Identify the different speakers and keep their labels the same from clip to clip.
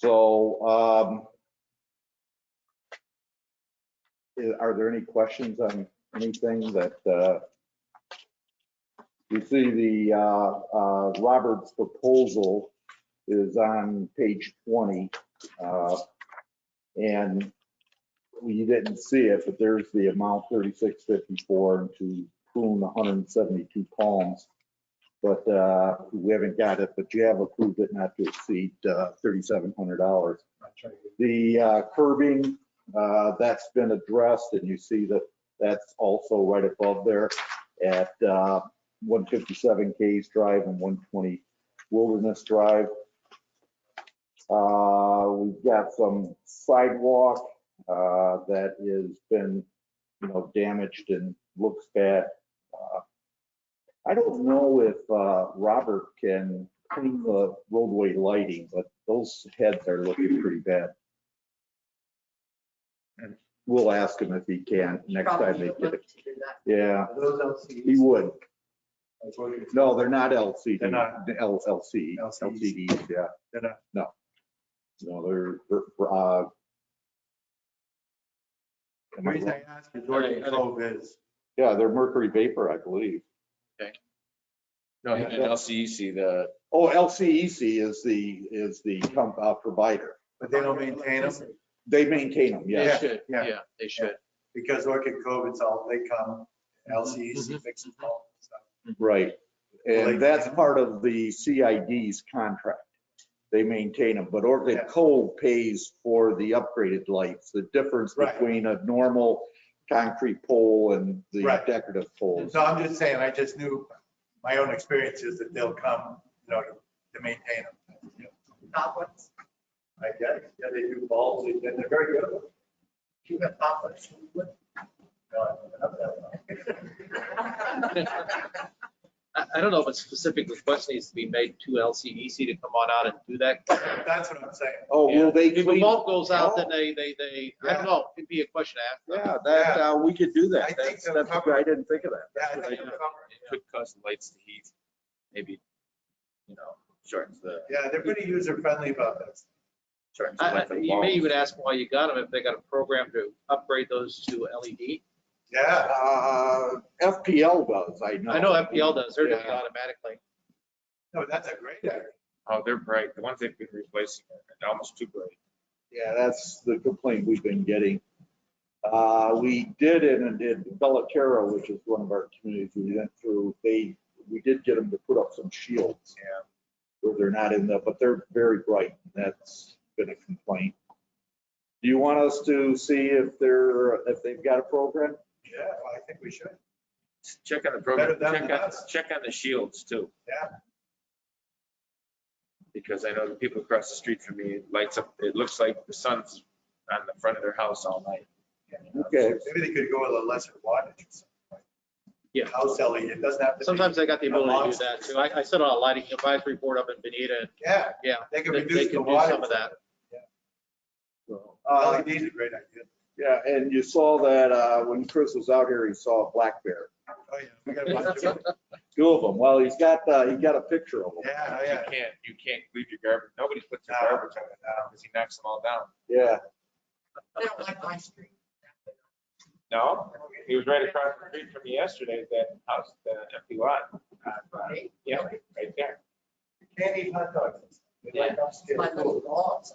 Speaker 1: So, um, i- are there any questions on anything that, uh, you see the, uh, uh, Roberts proposal is on page 20. uh, And you didn't see it, but there's the amount 3654 and to prune 172 palms. But uh, we haven't got it, but you have approved it not to exceed uh, $3,700. The uh, curbing, uh, that's been addressed and you see that that's also right above there at uh, 157 Case Drive and 120 Wilderness Drive. Uh, We've got some sidewalk uh, that has been, you know, damaged and looks bad. Uh, I don't know if uh, Robert can clean the roadway lighting, but those heads are looking pretty bad. And We'll ask him if he can next time
Speaker 2: Probably
Speaker 1: they
Speaker 2: would
Speaker 1: get
Speaker 2: look
Speaker 1: it.
Speaker 2: to do that.
Speaker 1: Yeah,
Speaker 3: Are those
Speaker 1: he
Speaker 3: LCDs?
Speaker 1: would.
Speaker 3: That's what you-
Speaker 1: No, they're not LCD.
Speaker 3: They're not.
Speaker 1: The L- LC,
Speaker 3: LCDs.
Speaker 1: LCDs, yeah.
Speaker 3: They're not.
Speaker 1: No. No, they're, they're, uh.
Speaker 3: The reason I ask is Orchard Cove is,
Speaker 1: Yeah, they're mercury vapor, I believe.
Speaker 4: No, and LCEC, E the,
Speaker 1: Oh, LCEC is the, is the com- uh, provider.
Speaker 3: but they don't maintain them
Speaker 1: They maintain them,
Speaker 4: they
Speaker 1: yeah.
Speaker 4: should,
Speaker 3: yeah.
Speaker 4: yeah, they should.
Speaker 3: because Orchid Cove, it's all, they come,
Speaker 4: Mm-hmm.
Speaker 3: LCEC fixes all the stuff.
Speaker 1: Right.
Speaker 3: Well, they-
Speaker 1: And that's part of the CID's contract. They maintain them, but Orchid
Speaker 3: Yeah.
Speaker 1: Cove pays for the upgraded lights. The difference
Speaker 3: Right.
Speaker 1: between a normal concrete pole and the
Speaker 3: Right.
Speaker 1: decorative poles.
Speaker 3: So I'm just saying, I just knew, my own experience is that they'll come, you know, to to maintain them.
Speaker 2: Top ones,
Speaker 3: I guess, yeah, they do bulbs, and they're very good.
Speaker 2: you have top ones.
Speaker 3: No, I don't have that one.
Speaker 5: I, I don't know if a specific request needs to be made to LCEC to come on out and do that.
Speaker 3: That's what I'm saying.
Speaker 1: Oh, will they
Speaker 5: If a
Speaker 1: clean?
Speaker 5: bulb goes out, then they, they, they, I don't know, it'd be a question to ask.
Speaker 1: Yeah, that, uh, we could do
Speaker 3: I
Speaker 1: that.
Speaker 3: think
Speaker 1: That's,
Speaker 3: they'll
Speaker 1: that's,
Speaker 3: cover it.
Speaker 1: I didn't think of that.
Speaker 3: Yeah, I think they're covered.
Speaker 4: It could cause the lights to heat, maybe, you know, shortens the,
Speaker 3: Yeah, they're pretty user friendly about this.
Speaker 4: shortens the
Speaker 5: I-
Speaker 4: life
Speaker 5: I-
Speaker 4: of the
Speaker 5: You may
Speaker 4: bulb.
Speaker 5: even ask why you got them, if they got a program to upgrade those to E LED.
Speaker 3: Yeah,
Speaker 1: Uh, FPL does, I know.
Speaker 5: I know FPL does, they're doing it
Speaker 1: Yeah.
Speaker 5: automatically.
Speaker 3: no, that's a great idea.
Speaker 4: Oh, they're bright. The ones they've been replacing are almost too bright.
Speaker 1: Yeah, that's the complaint we've been getting. Uh, we did in, in Belterra, which is one of our communities we went through, they, we did get them to put up some shields.
Speaker 4: Yeah.
Speaker 1: Where they're not in the, but they're very bright. That's been a complaint. Do you want us to see if they're, if they've got a program?
Speaker 3: Yeah, well, I think we should.
Speaker 4: Check on the program,
Speaker 3: Better than
Speaker 4: check on,
Speaker 3: us.
Speaker 4: check on the shields too.
Speaker 3: Yeah.
Speaker 4: Because I know the people across the street from me, it lights up, it looks like the sun's on the front of their house all night. uh,
Speaker 1: Okay.
Speaker 3: Maybe they could go with a lesser wattage. or something.
Speaker 5: Yeah.
Speaker 3: House LED, it doesn't have to be.
Speaker 5: Sometimes they got the ability to do that too. I, I sit on a lighting advisory board up in Benita,
Speaker 3: Yeah,
Speaker 5: yeah.
Speaker 3: they can
Speaker 5: They- they
Speaker 3: reduce the
Speaker 5: can do
Speaker 3: wattage.
Speaker 5: some of that.
Speaker 1: So,
Speaker 3: Uh,
Speaker 1: uh,
Speaker 3: LED is a great idea.
Speaker 1: Yeah, and you saw that, uh, when Chris was out here, he saw a black bear.
Speaker 3: Oh, yeah. We got a bunch of-
Speaker 1: Two of them. Well, he's got, uh, he got a picture of them.
Speaker 3: Yeah, oh,
Speaker 4: You
Speaker 3: yeah.
Speaker 4: can't, you can't leave your garbage, nobody puts their
Speaker 3: No.
Speaker 4: garbage out because he knocks them all down.
Speaker 1: Yeah.
Speaker 2: They don't like my street.
Speaker 4: No, he was right across the street from me yesterday, that house, that empty lot. Uh, Yeah, right there.
Speaker 3: Can't eat hot dogs. They like upstairs.
Speaker 2: My little walls.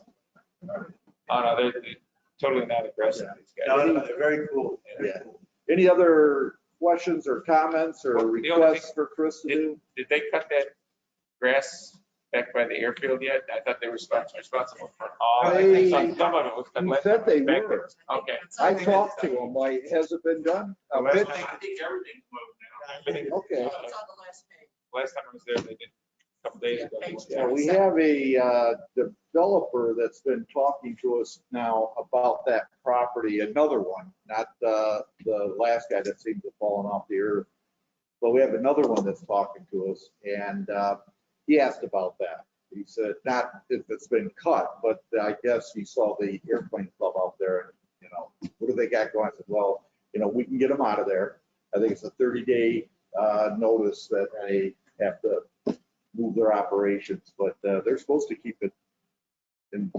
Speaker 4: Oh, no, they're they're totally not aggressive, these guys.
Speaker 3: No, no, they're very cool.
Speaker 1: Yeah. Any other questions or comments or
Speaker 4: Well, the only thing-
Speaker 1: requests for Chris to do?
Speaker 4: Did they cut that grass back by the airfield yet? I thought they were spons- responsible for all, I think some some of it was.
Speaker 1: He
Speaker 4: cut
Speaker 1: said they
Speaker 4: back
Speaker 1: were.
Speaker 4: Okay.
Speaker 1: I talked to him, like, has it been done? A
Speaker 4: there.
Speaker 1: bit?
Speaker 4: I think everything's moved now. Everything-
Speaker 1: Okay.
Speaker 2: It's on the last page.
Speaker 4: Last time I was there, they did a couple days ago. they went
Speaker 1: Yeah,
Speaker 4: there.
Speaker 1: we have a uh, developer that's been talking to us now about that property, another one, not the, the last guy that seems to have fallen off the earth. But we have another one that's talking to us and uh, he asked about that. He said, not if it's been cut, but I guess he saw the airplane club out there and, you know, what do they got going? I said, well, you know, we can get them out of there. I think it's a 30-day notice that they have to move their operations, but uh, they're supposed to keep it in